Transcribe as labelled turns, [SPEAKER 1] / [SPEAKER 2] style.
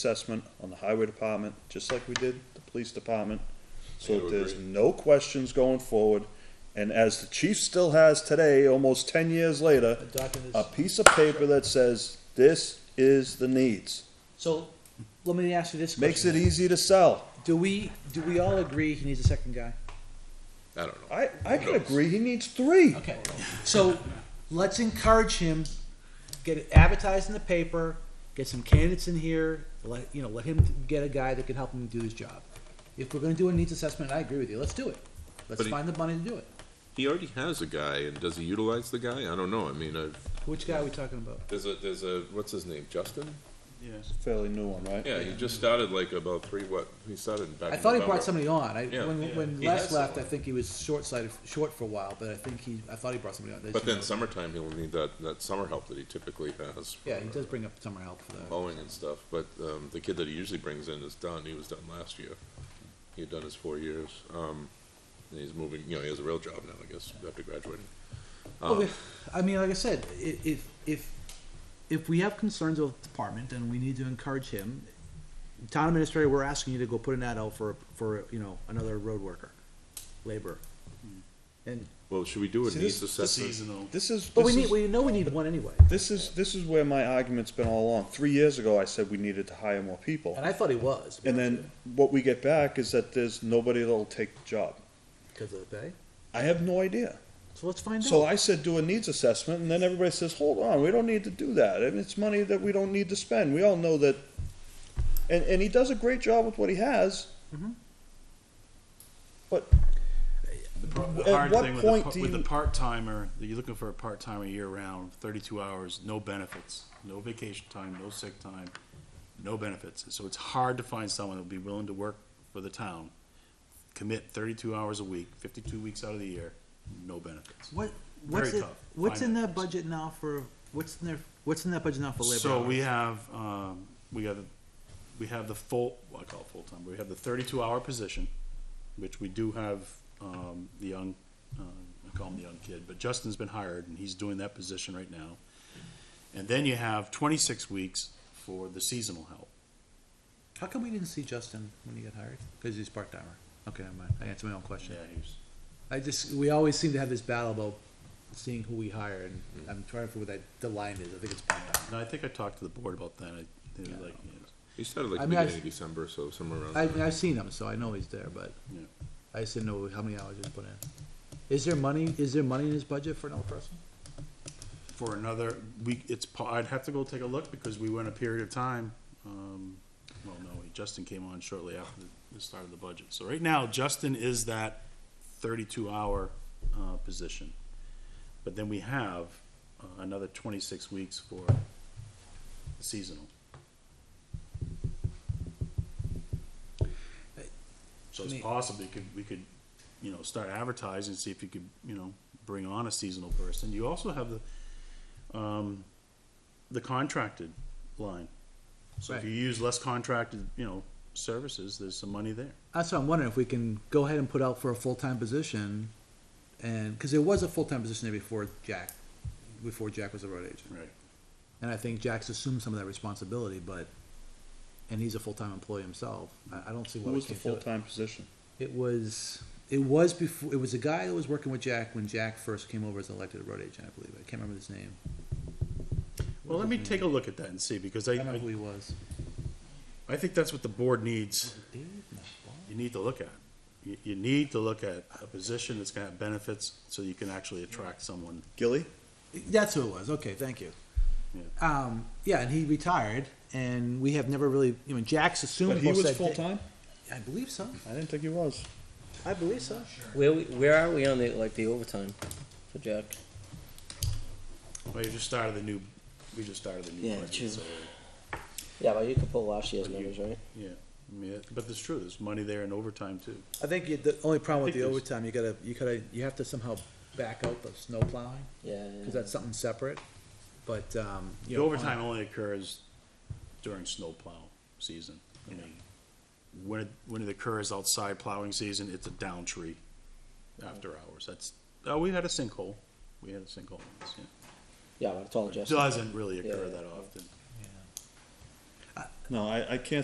[SPEAKER 1] assessment on the highway department, just like we did the police department. So
[SPEAKER 2] I
[SPEAKER 1] that
[SPEAKER 2] would
[SPEAKER 1] there's
[SPEAKER 2] agree.
[SPEAKER 1] no questions going forward, and as the chief still has today, almost ten years later,
[SPEAKER 3] A document
[SPEAKER 1] a
[SPEAKER 3] is,
[SPEAKER 1] piece of paper that says, this is the needs,
[SPEAKER 3] so, let me ask you this question.
[SPEAKER 1] makes it e- easy to sell.
[SPEAKER 3] Do we, do we all agree he needs a second guy?
[SPEAKER 2] I don't know.
[SPEAKER 1] I, I can agree, he needs three.
[SPEAKER 3] Okay, so let's encourage him, get it advertised in the paper, get some candidates in here, let, you know, let him get a guy that can help him do his job. If we're gonna do a needs assessment, I agree with you, let's do it. Let's
[SPEAKER 2] But he-
[SPEAKER 3] find the money to do it.
[SPEAKER 2] He already has a guy, and does he utilize the guy? I don't know. I mean, I've,
[SPEAKER 3] Which guy are we talking about?
[SPEAKER 2] there's a there's a what's his name, Justin?
[SPEAKER 1] It's a Fairly new one, right?
[SPEAKER 2] Yeah, he just started like about three. What he started back.
[SPEAKER 3] I
[SPEAKER 2] in
[SPEAKER 3] thought he
[SPEAKER 2] November.
[SPEAKER 3] brought somebody on, I,
[SPEAKER 2] Yeah.
[SPEAKER 3] when, when
[SPEAKER 2] He
[SPEAKER 3] Les
[SPEAKER 2] has
[SPEAKER 3] left, I
[SPEAKER 2] someone.
[SPEAKER 3] think he was short-sighted, short for a while, but I think he, I thought he brought somebody on.
[SPEAKER 2] But then summertime, he'll need that that summer help that he typically has. for
[SPEAKER 3] Yeah, he does bring up summer help for that.
[SPEAKER 2] Mowing and stuff. But um, the kid that he usually brings in is done. He was done last year. He had done his four years. Um, and he's moving. You know, he has a real job now. I guess after graduating.
[SPEAKER 3] Well, we- Oh, I mean, like I said, i- if, if, if we have concerns with the department and we need to encourage him, town administrator, we're asking you to go put an ad out for, for, you know, another road worker, laborer. And,
[SPEAKER 2] Well, should we do a
[SPEAKER 1] See,
[SPEAKER 2] needs
[SPEAKER 1] this- this
[SPEAKER 2] assessment?
[SPEAKER 1] This is,
[SPEAKER 3] Hmm. but we
[SPEAKER 1] this
[SPEAKER 3] need,
[SPEAKER 1] is,
[SPEAKER 3] we know we need one anyway,
[SPEAKER 1] this is, this is where my argument's been all along. Three years ago, I said we needed to hire more people.
[SPEAKER 3] and I thought he was.
[SPEAKER 1] And then what we get back is that there's nobody that'll take the job.
[SPEAKER 3] Because of the pay,
[SPEAKER 1] I have no idea.
[SPEAKER 3] so let's find
[SPEAKER 1] So
[SPEAKER 3] out.
[SPEAKER 1] I said do a needs assessment, and then everybody says, hold on, we don't need to do that. And it's money that we don't need to spend. We all know that. And, and he does a great job with what he has. But
[SPEAKER 4] The pro-
[SPEAKER 1] At
[SPEAKER 4] The hard
[SPEAKER 1] what
[SPEAKER 4] thing with
[SPEAKER 1] point
[SPEAKER 4] the, par-
[SPEAKER 1] do
[SPEAKER 4] with the
[SPEAKER 1] you-
[SPEAKER 4] part timer, that you're looking for a part timer year round, thirty-two hours, no benefits, no vacation time, no sick time, no benefits. So it's hard to find someone that'll be willing to work for the town, commit thirty-two hours a week, fifty-two weeks out of the year, no benefits.
[SPEAKER 3] What,
[SPEAKER 4] Very
[SPEAKER 3] what's it,
[SPEAKER 4] tough.
[SPEAKER 3] what's in
[SPEAKER 4] Find
[SPEAKER 3] that
[SPEAKER 4] it.
[SPEAKER 3] budget now for, what's in there, what's in that budget now for labor?
[SPEAKER 4] So
[SPEAKER 3] hours?
[SPEAKER 4] we have, um, we got, we have the full, well, I call it full time, we have the thirty-two hour position, which we do have, um, the young, uh, I call him the young kid, but Justin's been hired and he's doing that position right now. And then you have twenty-six weeks for the seasonal help.
[SPEAKER 3] How come we didn't see Justin when he got hired? Because he's part timer. Okay, never mind. I answered my own question.
[SPEAKER 4] he's.
[SPEAKER 3] I just we always seem to have this battle about seeing who we hire, and I'm trying to figure what that the line is. I think it's part timer.
[SPEAKER 4] And I think I talked to the board about that, I, they were like, you know,
[SPEAKER 2] He started like
[SPEAKER 3] I
[SPEAKER 2] the
[SPEAKER 3] mean, I-
[SPEAKER 2] beginning of December, so somewhere around.
[SPEAKER 3] I
[SPEAKER 2] there.
[SPEAKER 3] mean, I've seen him, so I know he's there, but
[SPEAKER 4] Yeah.
[SPEAKER 3] I just didn't know how many hours he's put in. Is there money? Is there money in his budget for another person?
[SPEAKER 4] for another week, it's, po- I'd have to go take a look because we went a period of time. um, Well, no, wait, Justin came on shortly after the- the start of the budget. So right now, Justin is that thirty-two hour uh, position. But then we have uh, another twenty-six weeks for seasonal.
[SPEAKER 3] I
[SPEAKER 4] So it's
[SPEAKER 3] mean-
[SPEAKER 4] possible, we could, we could, you know, start advertising, see if you could, you know, bring on a seasonal person. You also have the, um, the contracted line. So if
[SPEAKER 3] Right.
[SPEAKER 4] you use less contracted, you know, services, there's some money there.
[SPEAKER 3] That's what I'm wondering if we can go ahead and put out for a full time position, and because there was a full time position there before Jack, before Jack was a road agent.
[SPEAKER 4] Right.
[SPEAKER 3] And I think Jack's assumed some of that responsibility, but, and he's a full-time employee himself. I, I don't see
[SPEAKER 1] who
[SPEAKER 3] why we
[SPEAKER 1] was the
[SPEAKER 3] can't do it.
[SPEAKER 1] full-time position?
[SPEAKER 3] It was, it was before, it was a guy that was working with Jack when Jack first came over as an elected road agent, I believe. I can't remember his name.
[SPEAKER 4] Well, let me take a look at that and see, because I,
[SPEAKER 3] I don't know who
[SPEAKER 4] I,
[SPEAKER 3] he was.
[SPEAKER 4] I think that's what the board needs,
[SPEAKER 3] Dave? No.
[SPEAKER 4] you need to look at. You, you need to look at a position that's gonna have benefits, so you can actually attract someone.
[SPEAKER 1] Gilly?
[SPEAKER 3] That's who it was. Okay, thank you.
[SPEAKER 4] Yeah.
[SPEAKER 3] Um, yeah, and he retired, and we have never really, I mean, Jack's assumed.
[SPEAKER 1] But he
[SPEAKER 3] most of
[SPEAKER 1] was
[SPEAKER 3] that day-
[SPEAKER 1] full-time?
[SPEAKER 3] I believe so.
[SPEAKER 1] I didn't think he was.
[SPEAKER 3] I believe so.
[SPEAKER 5] Where we, where are we on the like the overtime for Jack?
[SPEAKER 4] Well, you just started the new, we just started the new
[SPEAKER 5] Yeah, true.
[SPEAKER 4] budget, so,
[SPEAKER 5] Yeah, well, you could pull last year's numbers, right?
[SPEAKER 4] yeah. I mean, it- but it's true, there's money there in overtime too.
[SPEAKER 3] I think you- the only problem with
[SPEAKER 4] I think
[SPEAKER 3] the
[SPEAKER 4] there's-
[SPEAKER 3] overtime, you gotta, you gotta, you have to somehow back out the snow plowing.
[SPEAKER 5] Yeah.
[SPEAKER 3] because that's something separate. But um,
[SPEAKER 4] The
[SPEAKER 3] you know,
[SPEAKER 4] overtime only occurs during snowplow season. I mean, when it, when it occurs outside plowing season, it's a down tree after hours. That's, oh, we had a sinkhole. We had a sinkhole once, yeah.
[SPEAKER 5] yeah, but it's all just.
[SPEAKER 4] Doesn't really
[SPEAKER 5] Yeah,
[SPEAKER 4] occur
[SPEAKER 5] yeah,
[SPEAKER 4] that
[SPEAKER 5] yeah.
[SPEAKER 4] often.
[SPEAKER 3] I-
[SPEAKER 1] No, I, I can't